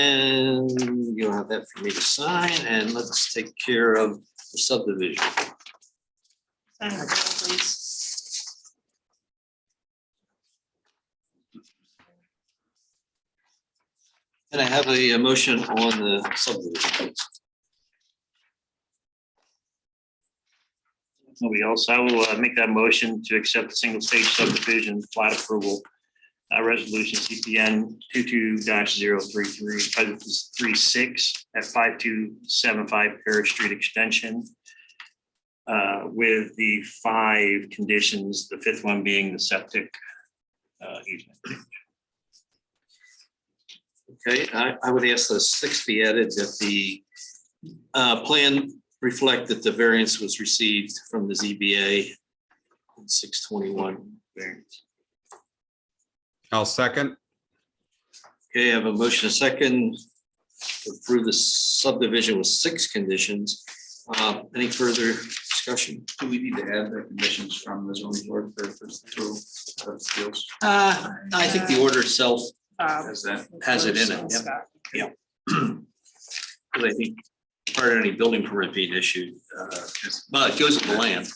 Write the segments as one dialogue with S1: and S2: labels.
S1: And you'll have that for me to sign and let's take care of the subdivision.
S2: Sign the bill, please.
S1: And I have a uh, motion on the subdivision. please?
S3: Nobody else. I will uh, make that motion to accept the single stage subdivision plat approval. uh, Resolution CPN 22-033-36 at 5275 Parish Street Extension. uh, With the five conditions, the fifth one being the septic. uh, easement.
S1: Okay, I, I would ask the six be added that the uh, plan reflect that the variance was received from the ZBA in six twenty-one variance.
S4: I'll second.
S1: Okay, I have a motion, a second, to approve the subdivision with six conditions. Uh, Any further discussion?
S5: Do we need to add the conditions from the zoning board for first approval of appeals?
S1: Uh, I think the order itself,
S2: Um,
S5: Is that,
S1: Has it in it, yep.
S2: Scott.
S1: because I think part of any building permit being issued, uh, well, it goes with the land,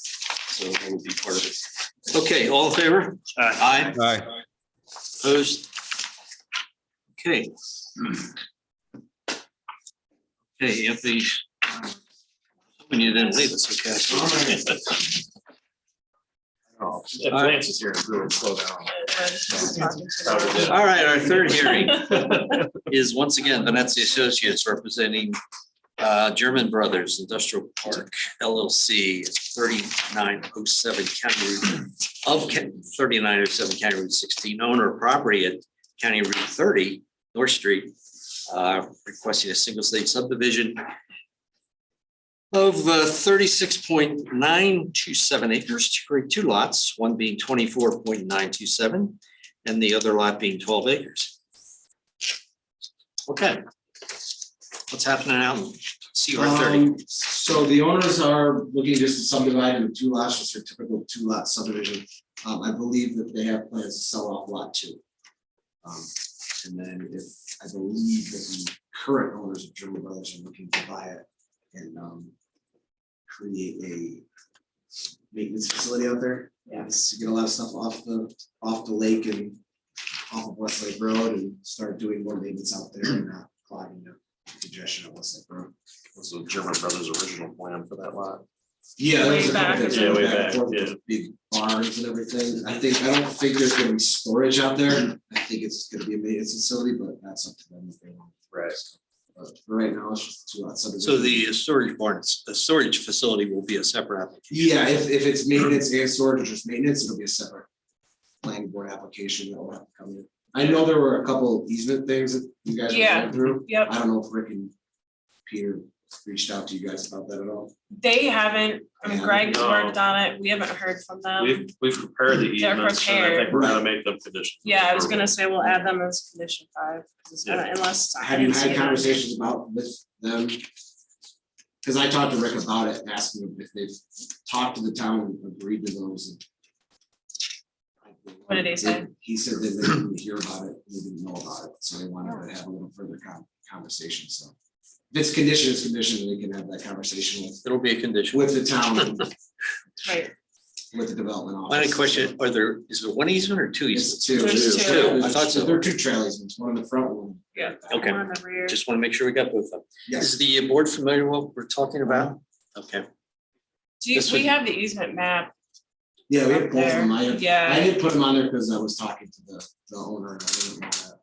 S1: so it would be part of it. Okay, all in favor?
S3: Uh,
S1: Aye.
S4: Aye.
S1: Opposed? Okay. Okay, Anthony. When you didn't leave us, okay.
S6: If Lance is here, it would slow down.
S2: Uh, just talking to
S6: That was it.
S1: All right, our third hearing is once again Venezia Associates representing uh, German Brothers Industrial Park LLC, thirty-nine oh seven County Route of thirty-nine oh seven County Route sixteen, owner of property at County Route thirty, North Street, uh, requesting a single stage subdivision of uh, thirty-six point nine two seven acres to create two lots, one being twenty-four point nine two seven and the other lot being twelve acres. Okay. What's happening out in CR thirty?
S7: Um, So the owners are looking just to subdivide into two lots, just your typical two lot subdivision. Um, I believe that they have plans to sell off lot two. Um, and then if, I believe that the current owners of German Brothers are looking to buy it and, um, create a maintenance facility out there.
S2: Yeah.
S7: It's to get a lot of stuff off the, off the lake and off of Westlake Road and start doing more maintenance out there and not clogging the congestion of Westlake Road.
S6: Was the German Brothers original plan for that lot?
S7: Yeah.
S2: Way
S7: there's a couple
S2: back,
S7: things
S2: yeah,
S7: going
S6: way
S7: and
S6: back,
S7: forth with
S6: yeah.
S7: Big barns and everything, I think, I don't think there's gonna be storage out there, I think it's gonna be a maintenance facility, but that's up to them if they want.
S6: Right.
S7: But for right now, it's just two lots.
S1: So the storage barns, the storage facility will be a separate application.
S7: Yeah, if, if it's maintenance and storage, or just maintenance, it'll be a separate planning board application that will have to come in. I know there were a couple easement things that you guys were
S2: Yeah.
S7: going through,
S2: Yep,
S7: I don't know if Rick and Peter reached out to you guys about that at all.
S2: they haven't, I mean, Greg's
S6: No.
S2: worked on it, we haven't heard from them.
S6: We've, we've prepared the
S2: Um, They're
S6: easements and I think we're gonna make them conditions.
S2: Yeah, I was gonna say we'll add them as condition five, 'cause it's not- unless. I
S7: Have you
S2: didn't see
S7: had
S2: them.
S7: conversations about with them? Cause I talked to Rick about it, and asked him if they've talked to the town and agreed to those. and-
S2: What did he say?
S7: He said that they didn't hear about it, they didn't know about it, so they wanted to have a little further con- conversation, so. If it's condition, it's condition, they can have that conversation with,
S1: It'll be a condition.
S7: with the town,
S2: Right,
S7: with the development office.
S1: My only question, are there, is there one easement or two easements?
S7: It's two.
S2: There's two.
S1: I thought so.
S7: There are two trailers, it's one in the front one.
S2: Yeah.
S1: Okay.
S2: one in the rear.
S1: Just want to make sure we got both of them.
S7: Yes,
S1: Is the board familiar with what we're talking about? Okay,
S2: Do you,
S1: this
S2: we
S1: would-
S2: have the easement map,
S7: yeah, we
S2: Up
S7: have both of them, I have-
S2: yeah.
S7: I didn't put them on there because I was talking to the, the owner and I didn't wanna.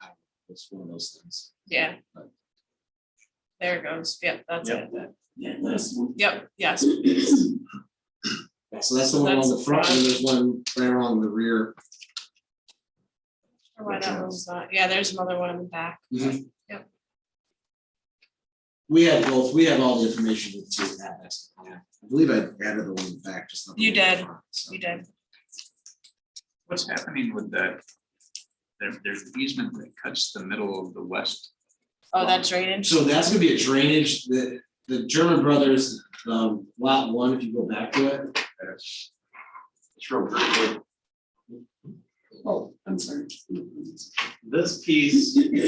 S7: I- It's one of those things.
S2: Yeah. There it goes. Yep, that's it.
S7: Yeah, that's one.
S2: Yep, yes.
S7: So that's the one on the
S2: That's-
S7: front and there's one right around the rear.
S2: Why that one's not- Yeah, there's another one in the back. Yep.
S7: Mm-hmm. We have both, we have all the information to do that, that's, yeah, I believe I added the one back, just not. the
S2: You
S7: one in
S2: did.
S7: front, so.
S2: You did.
S5: what's happening with that? There, there's an easement that cuts the middle of the west.
S2: Oh, that drainage.
S7: So that's gonna be a drainage, the, the German Brothers, um, lot one, if you go back to it.
S6: It's real great.
S7: Oh, I'm sorry.
S6: This piece